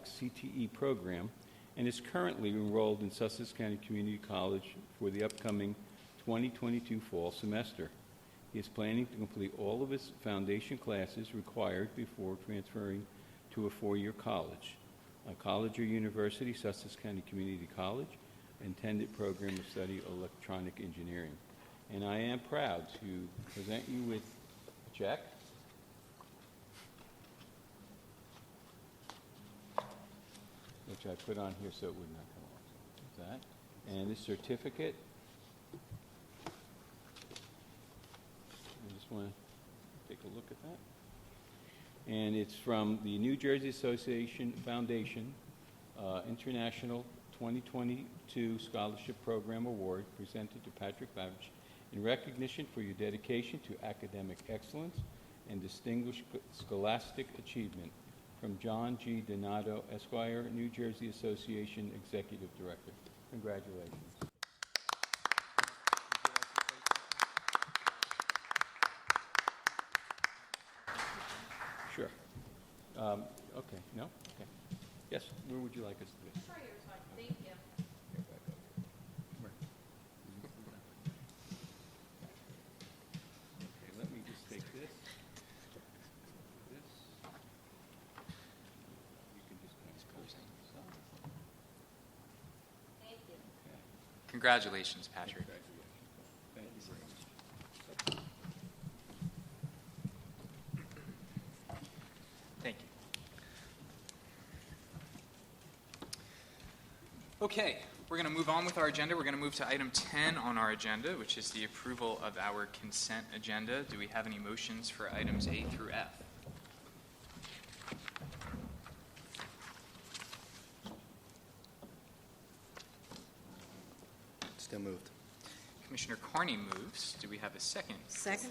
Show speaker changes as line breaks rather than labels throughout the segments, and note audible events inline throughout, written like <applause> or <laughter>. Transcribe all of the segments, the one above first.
CTE E program and is currently enrolled in Sussex County Community College for the upcoming 2022 fall semester. He is planning to complete all of his foundation classes required before transferring to a four-year college. A college or university, Sussex County Community College, intended program of study electronic engineering. And I am proud to present you with a check which I put on here so it would not come off. That, and this certificate. I just want to take a look at that. And it's from the New Jersey Association Foundation uh, International 2022 Scholarship Program Award presented to Patrick Babich in recognition for your dedication to academic excellence and distinguished scholastic achievement from John G. Donato Esquire, New Jersey Association Executive Director. Congratulations. Sure. Um, Okay, no? Okay. Yes, where would you like us to be?
Sure, you're fine. Thank you.
Okay, let me just take this. This. You can just kind of put it on the side.
Thank you.
Okay.
Congratulations, Patrick.
Thank you very much.
Thank you. Okay, we're going to move on with our agenda. We're going to move to item 10 on our agenda, which is the approval of our consent agenda. Do we have any motions for items A through F?
Still moved.
Commissioner Carney moves. Do we have a second?
Second?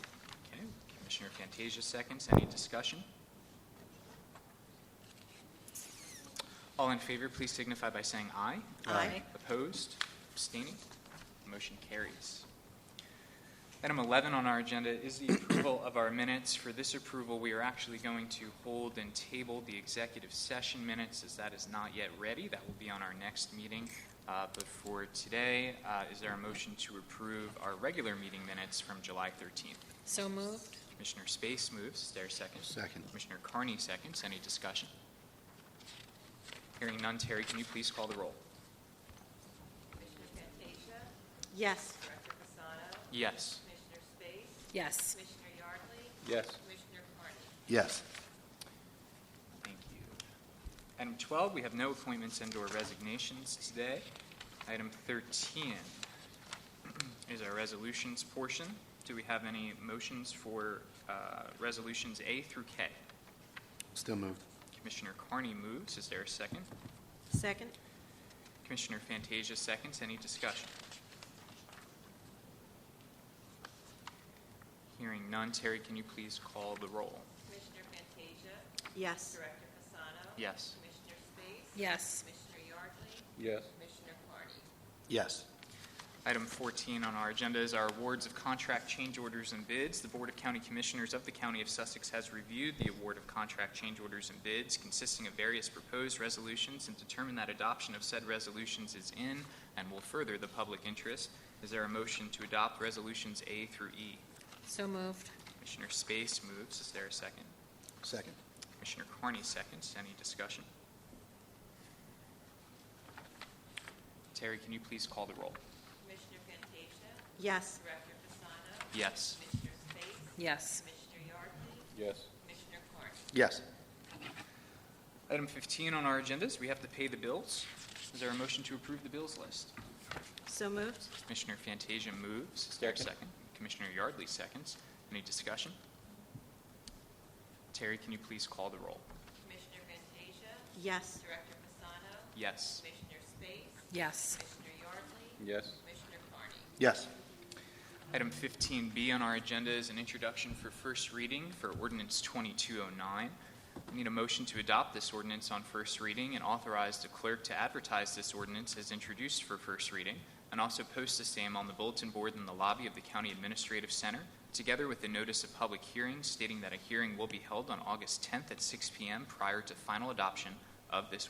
Okay, Commissioner Fantasia seconds. Any discussion? All in favor, please signify by saying aye.
Aye.
Opposed? Abstaining? Motion carries. Item 11 on our agenda is the approval of our minutes. For this approval, we are actually going to hold and table the executive session minutes as that is not yet ready. That will be on our next meeting. Uh, But for today, uh, is there a motion to approve our regular meeting minutes from July 13th?
So moved?
Commissioner Space moves. Is there a second?
Second.
Commissioner Carney seconds. Any discussion? Hearing none, Terry, can you please call the roll?
Commissioner Fantasia,
Yes.
Director Fasano,
Yes.
Commissioner Space,
Yes.
Commissioner Yardley,
Yes.
Commissioner Carney.
Yes.
Thank you. Item 12, we have no appointments and/or resignations today. Item 13 <clears throat> is our resolutions portion. Do we have any motions for uh, resolutions A through K?
Still moved.
Commissioner Carney moves. Is there a second?
Second?
Commissioner Fantasia seconds. Any discussion? Hearing none. Terry, can you please call the roll?
Commissioner Fantasia,
Yes.
Director Fasano.
Yes.
Commissioner Space.
Yes.
Commissioner Yardley,
Yes.
Commissioner Carney.
Yes.
Item 14 on our agenda is our awards of contract change orders and bids. The Board of County Commissioners of the County of Sussex has reviewed the award of contract change orders and bids consisting of various proposed resolutions and determined that adoption of said resolutions is in and will further the public interest. Is there a motion to adopt resolutions A through E?
So moved?
Commissioner Space moves. Is there a second?
Second.
Commissioner Carney seconds. Any discussion? Terry, can you please call the roll?
Commissioner Fantasia,
Yes.
Director Fasano,
Yes.
Commissioner Space,
Yes.
Commissioner Yardley,
Yes.
Commissioner Carney.
Yes.
Item 15 on our agenda is we have to pay the bills. Is there a motion to approve the bills list?
So moved?
Commissioner Fantasia moves. Is there a second? Commissioner Yardley seconds. Any discussion? Terry, can you please call the roll?
Commissioner Fantasia,
Yes.
Director Fasano,
Yes.
Commissioner Space,
Yes.
Commissioner Yardley,
Yes.
Commissioner Carney.
Yes.
Item 15B on our agenda is an introduction for first reading for ordinance 2209. We need a motion to adopt this ordinance on first reading and authorize the clerk to advertise this ordinance as introduced for first reading and also post the same on the bulletin board in the lobby of the County Administrative Center, together with the notice of public hearing stating that a hearing will be held on August 10th at 6 p.m. prior to final adoption of this ordinance.